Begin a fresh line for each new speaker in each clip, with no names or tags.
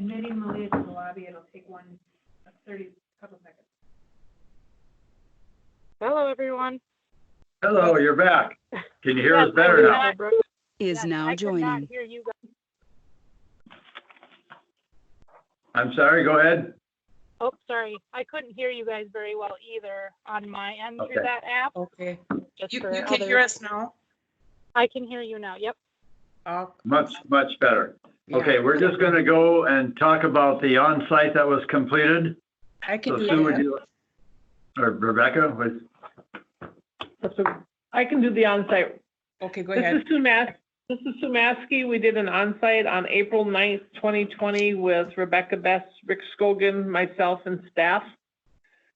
meeting will leave in the lobby, it'll take one, uh, thirty, couple seconds.
Hello, everyone.
Hello, you're back. Can you hear us
Yes, I
better
did
now?
not- yes,
is
I could
now
not
joining.
hear you guys.
I'm sorry, go ahead.
Oh, sorry. I couldn't hear you guys very well either on my end
Okay.
through that app.
Okay,
Just
you,
for
you can hear
others.
us now?
I can hear you now. Yep.
Oh,
Much, much better.
yeah.
Okay, we're just going to go and talk about the on-site that was completed.
I can
So Sue, would
hear you.
you, or Rebecca, would-
So I can do the onsite.
Okay, go
This
ahead.
is Sumas, this is Sumaski. We did an onsite on April 9th, 2020 with Rebecca Best, Rick Scogan, myself and staff.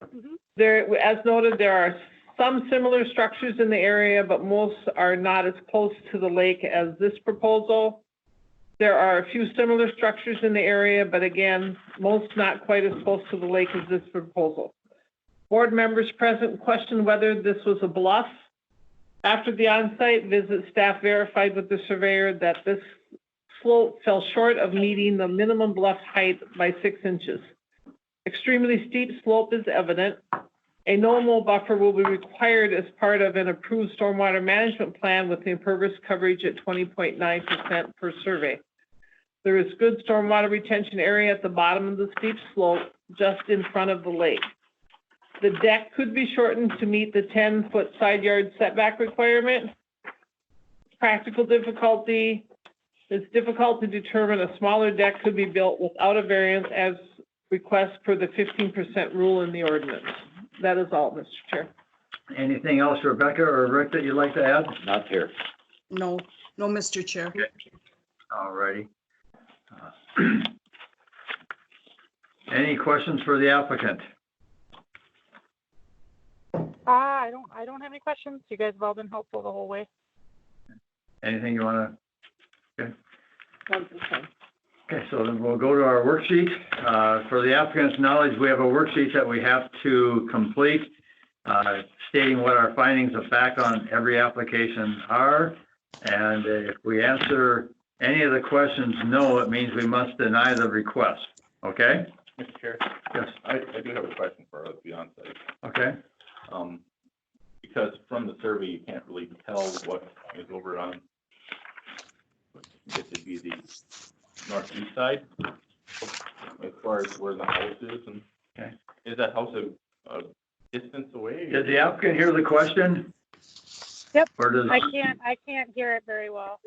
Mm-hmm.
Mhm.
There, as noted, there are some similar structures in the area, but most are not as close to the lake as this proposal. There are a few similar structures in the area, but again, most not quite as close to the lake as this proposal. Board members present questioned whether this was a bluff. After the on-site visit, staff verified with the surveyor that this slope fell short of meeting the minimum bluff height by six inches. Extremely steep slope is evident. A normal buffer will be required as part of an approved stormwater management plan with the impervious coverage at 20.9% per survey. There is good stormwater retention area at the bottom of the steep slope, just in front of the lake. The deck could be shortened to meet the 10-foot side yard setback requirement. Practical difficulty, it's difficult to determine a smaller deck could be built without a variance as request per the 15% rule in the ordinance. That is all, Mr. Chair.
anything else, Rebecca or Rick, that you'd like to add?
Not here.
No, no, Mr. Chair.
All righty. Uh, Any questions for the applicant?
Ah, I don't, I don't have any questions. You guys have all been helpful the whole way.
Anything you want to?
One percent.
Okay, so then we'll go to our worksheet. Uh, For the applicant's knowledge, we have a worksheet that we have to complete uh, stating what our findings of fact on every application are. And if we answer any of the questions no, it means we must deny the request. Okay?
Mr. Chair,
Yes,
I, I do have a question for us beyond that.
okay.
Um, because from the survey, you can't really tell what is over on, it would be the northeast side, as far as where the house is and.
Okay.
Is that house a, a distance away?
Did the applicant hear the question?
Yep.
Or does,
I can't, I can't hear it very well.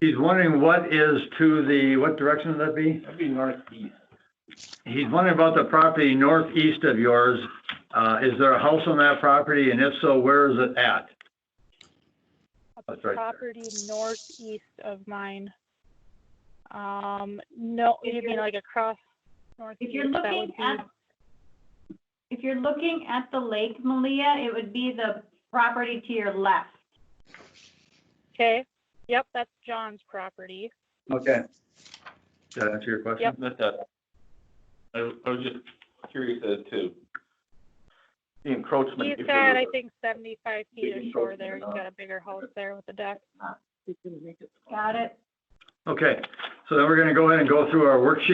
he's wondering what is to the, what direction would that be?
That'd be northeast.
He's wondering about the property northeast of yours. Uh, is there a house on that property? And if so, where is it at? That's right there.
Property northeast of mine. Um, no,
If
you mean
you're-
like across
If you're
northeast, that
looking
would be,
at, if you're looking at the lake, Malia, it would be the property to your left.
okay. Yep, that's John's property.
Okay. Did that answer your question?
Yep.
That's that. I, I was just curious as to the encroachment.
He's
if there
got,
was
I
a-
think, seventy-five feet
big
of shore
encroachment
there.
or
He's
not.
got a bigger house there with a deck.
Got it?
Okay, so then we're gonna go ahead and go through our worksheet